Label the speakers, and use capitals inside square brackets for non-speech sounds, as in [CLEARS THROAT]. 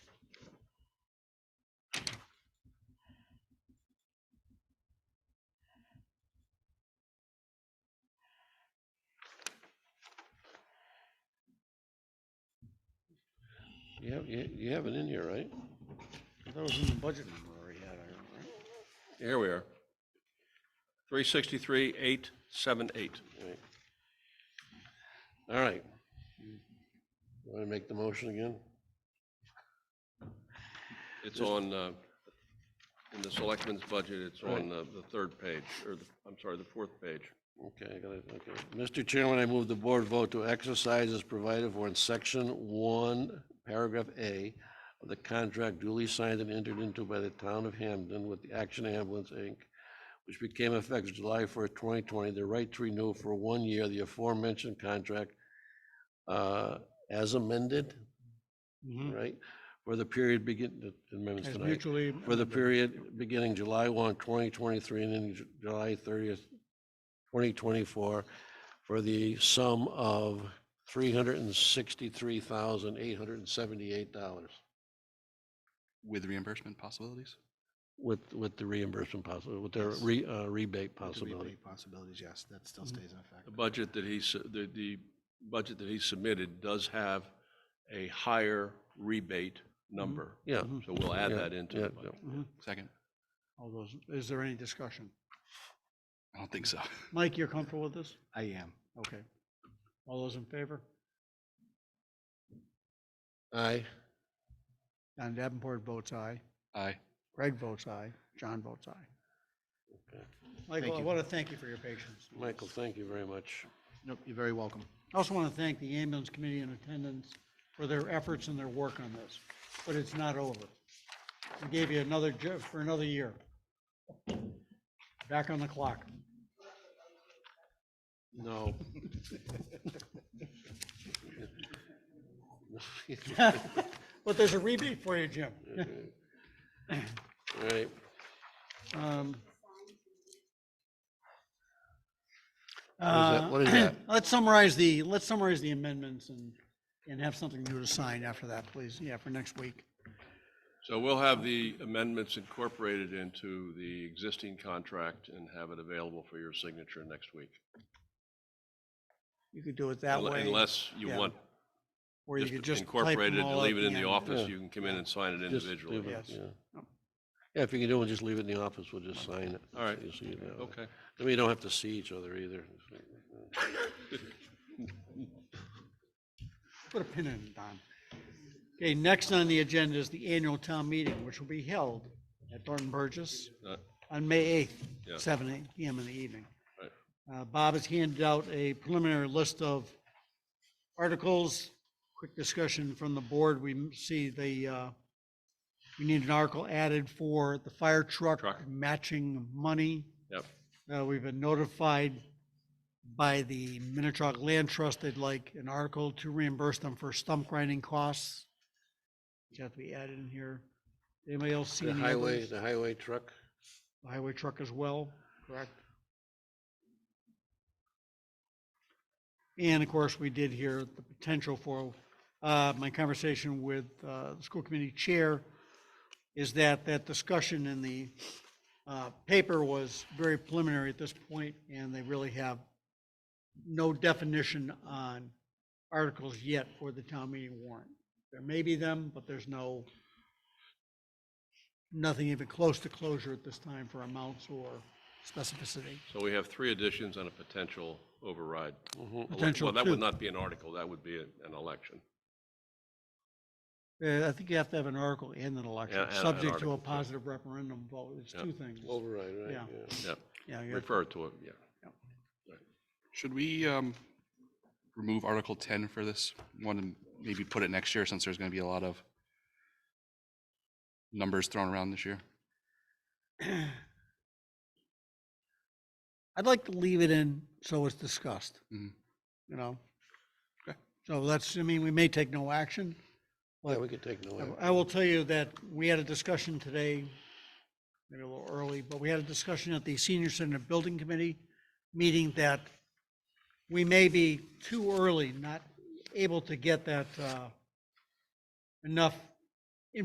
Speaker 1: have, you, you have it in here, right?
Speaker 2: That was in the budget number we had, I remember.
Speaker 3: Here we are. Three sixty-three, eight, seven, eight.
Speaker 1: Right. All right. Want to make the motion again?
Speaker 3: It's on, uh, in the selectmen's budget, it's on uh, the third page, or the, I'm sorry, the fourth page.
Speaker 1: Okay, I got it, okay. Mr. Chairman, I move the board vote to exercise as provided for in section one, paragraph A of the contract duly signed and entered into by the town of Hamden with the Action Ambulance, Inc., which became effective July first, twenty twenty, the right to renew for one year the aforementioned contract uh, as amended,
Speaker 2: Mhm.
Speaker 1: right? For the period begin, the amendments
Speaker 2: As
Speaker 1: tonight
Speaker 2: mutually.
Speaker 1: for the period beginning July 1, 2023, and ending Ju- July 30th, 2024, for the sum of $363,878
Speaker 4: With reimbursement possibilities?
Speaker 1: with, with the reimbursement possible, with the
Speaker 2: Yes.
Speaker 1: re- uh, rebate
Speaker 2: With the
Speaker 1: possibility.
Speaker 2: rebate Possibilities, yes, that still
Speaker 1: Mhm.
Speaker 2: stays in effect.
Speaker 3: The budget that he, su- the, the budget that he submitted does have a higher rebate number.
Speaker 1: Yeah.
Speaker 2: Mhm.
Speaker 3: So we'll add
Speaker 1: Yeah,
Speaker 3: that into
Speaker 1: yeah,
Speaker 3: the budget.
Speaker 2: Mhm.
Speaker 4: Second?
Speaker 2: All those, is there any discussion?
Speaker 4: I don't think so. [LAUGHS]
Speaker 2: Mike, you're comfortable with this?
Speaker 4: I am.
Speaker 2: Okay. All those in favor?
Speaker 1: Aye.
Speaker 2: Don Davenport votes aye.
Speaker 4: Aye.
Speaker 2: Greg votes aye. John votes aye.
Speaker 1: Okay.
Speaker 2: Michael, I
Speaker 4: you.
Speaker 2: want to thank you for your patience.
Speaker 1: Michael, thank you very much.
Speaker 4: Nope, you're very welcome.
Speaker 2: I also want to thank the ambulance committee in attendance for their efforts and their work on this, but it's not over. We gave you another, ju- for another year. Back on the clock. [LAUGHS]
Speaker 1: No.
Speaker 2: [LAUGHS] But there's a rebate for you, Jim.
Speaker 1: All right.
Speaker 2: Um,
Speaker 1: is that? What is that?
Speaker 2: uh, [CLEARS THROAT] Let's summarize the, let's summarize the amendments and, and have something new to sign after that, please. Yeah, for next week.
Speaker 3: So we'll have the amendments incorporated into the existing contract and have it available for your signature next week.
Speaker 2: You could do it that way.
Speaker 3: Unless you
Speaker 2: yeah.
Speaker 3: want
Speaker 2: or you could
Speaker 3: just
Speaker 2: just type
Speaker 3: incorporated
Speaker 2: them
Speaker 3: and
Speaker 2: all
Speaker 3: leave
Speaker 2: out
Speaker 3: it in the
Speaker 2: end.
Speaker 3: office,
Speaker 1: Yeah.
Speaker 3: you can come in and sign it
Speaker 1: Just
Speaker 3: individually.
Speaker 1: leave it,
Speaker 2: Yes. Oh.
Speaker 1: Yeah,
Speaker 2: Yep.
Speaker 1: Yeah. if you can do it, just leave it in the office, we'll just sign it.
Speaker 3: All right.
Speaker 1: So you see it that way.
Speaker 3: Okay.
Speaker 1: Then we don't have to see each other either.
Speaker 2: Put a pin in it, Don. Okay, next on the agenda is the annual town meeting, which will be held at Thornton Burgess
Speaker 3: Uh,
Speaker 2: on May 8th,
Speaker 3: Yeah.
Speaker 2: 7 PM in the evening.
Speaker 3: Right.
Speaker 2: Uh, Bob has handed out a preliminary list of articles, quick discussion from the board. We m- see the, uh, we need an article added for the fire truck
Speaker 3: Truck.
Speaker 2: matching money.
Speaker 3: Yep.
Speaker 2: Uh, We've been notified by the Minnetonka Land Trust, they'd like an article to reimburse them for stump grinding costs. Which have to be added in here. Anybody else see
Speaker 1: The
Speaker 2: any
Speaker 1: highway,
Speaker 2: others?
Speaker 1: the highway truck,
Speaker 2: Highway truck as well, correct? And of course, we did hear the potential for, uh, my conversation with, uh, the school committee chair is that that discussion in the, uh, paper was very preliminary at this point, and they really have no definition on articles yet for the town meeting warrant. There may be them, but there's no, nothing even close to closure at this time for amounts or specificity.
Speaker 3: So we have three additions and a potential override. Ele-
Speaker 2: Potential
Speaker 3: Well, that would
Speaker 2: two.
Speaker 3: not be an article, that would be a- an election.
Speaker 2: Uh, I think you have to have an article and an election,
Speaker 3: Yeah, and an
Speaker 2: subject to
Speaker 3: article,
Speaker 2: a
Speaker 3: yeah.
Speaker 2: positive referendum vote. It's
Speaker 3: Yeah.
Speaker 2: two things.
Speaker 1: override, right?
Speaker 2: Yeah.
Speaker 3: Yeah,
Speaker 2: Yeah, you have-
Speaker 3: refer to it, yeah.
Speaker 4: Should we um, remove Article 10 for this one and maybe put it next year since there's going to be a lot of numbers thrown around this year?
Speaker 2: [CLEARS THROAT] I'd like to leave it in so it's discussed, you
Speaker 4: Mhm.
Speaker 2: know?
Speaker 4: Okay.
Speaker 2: So that's, I mean, we may take no action.
Speaker 1: Yeah, we could take no
Speaker 2: I-
Speaker 1: action.
Speaker 2: I will tell you that we had a discussion today, maybe a little early, but we had a discussion at the Senior Center Building Committee meeting that we may be too early, not able to get that uh, enough